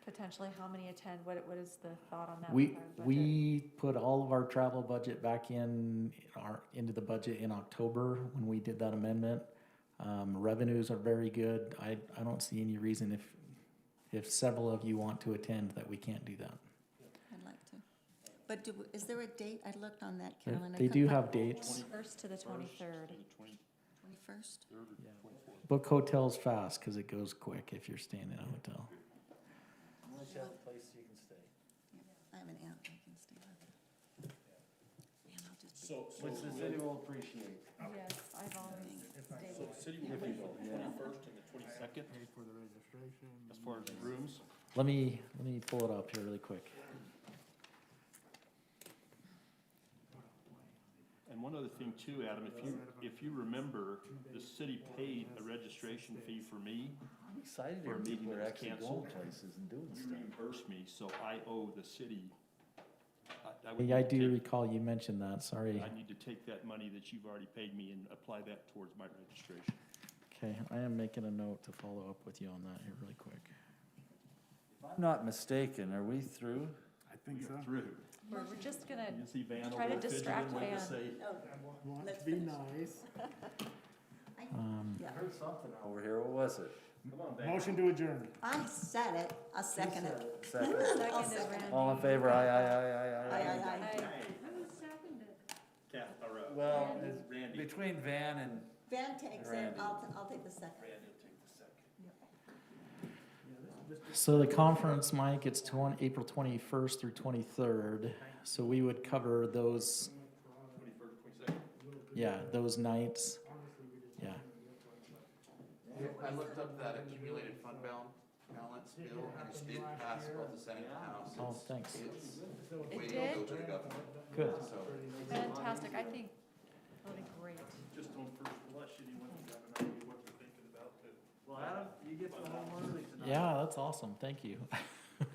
potentially how many attend? What, what is the thought on that? We, with our budget? we put all of our travel budget back in our, into the budget in October when we did that amendment. Um, revenues are very good. I, I don't see any reason if, if several of you want to attend that we can't do that. I'd like to. But do, is there a date? I looked on that, They- Carolyn. They do have dates. First to the twenty-third. Twenty-first? Book hotels fast because it goes quick if you're staying in a hotel. Unless you have a place you can stay. I have an aunt I can stay with. Man, I'll just be. So, so, Which the city will appreciate. Yes, I've already so the city will be the twenty-first and the twenty-second Paid for the registration. as far as rooms. Let me, let me pull it up here really quick. And one other thing too, Adam, if you, if you remember, the city paid a registration fee for me, I'm excited For a here. meeting People are that's actually going canceled. places and doing you stuff. reimbursed me, so I owe the city. I- I would Yeah, I need to do take- recall you mentioned that, sorry. I need to take that money that you've already paid me and apply that towards my registration. Okay, I am making a note to follow up with you on that here really quick. If I'm not mistaken, are we through? I think We so. are Through. We're, we're just gonna, You can see Van Try over to there fidgeting, distract waiting to Van. say, Want Let's to be finish. nice. Um, Yeah. I heard something over here. What was it? Motion to adjourn. I said it. I'll second it. Second. second I'll is second Randy. All in favor? Aye, aye, aye, aye, Aye, aye. aye, aye. Kath, or, uh, Well, it's Randy. between Van and, Van takes it. Randy. I'll, I'll take the second. So the conference, Mike, it's twen- April twenty-first through twenty-third, so we would cover those. Yeah, those nights, yeah. I looked up that accumulated fund bal- balance bill, and it's been passed both the Senate and House. Oh, It's- thanks. It's It way did? over to the government, Good. so. fantastic, I think, that'll be great. Just on first blush, anyone who's got an idea what they're thinking about, but well, Adam, you get the whole morning tonight. Yeah, that's awesome. Thank you.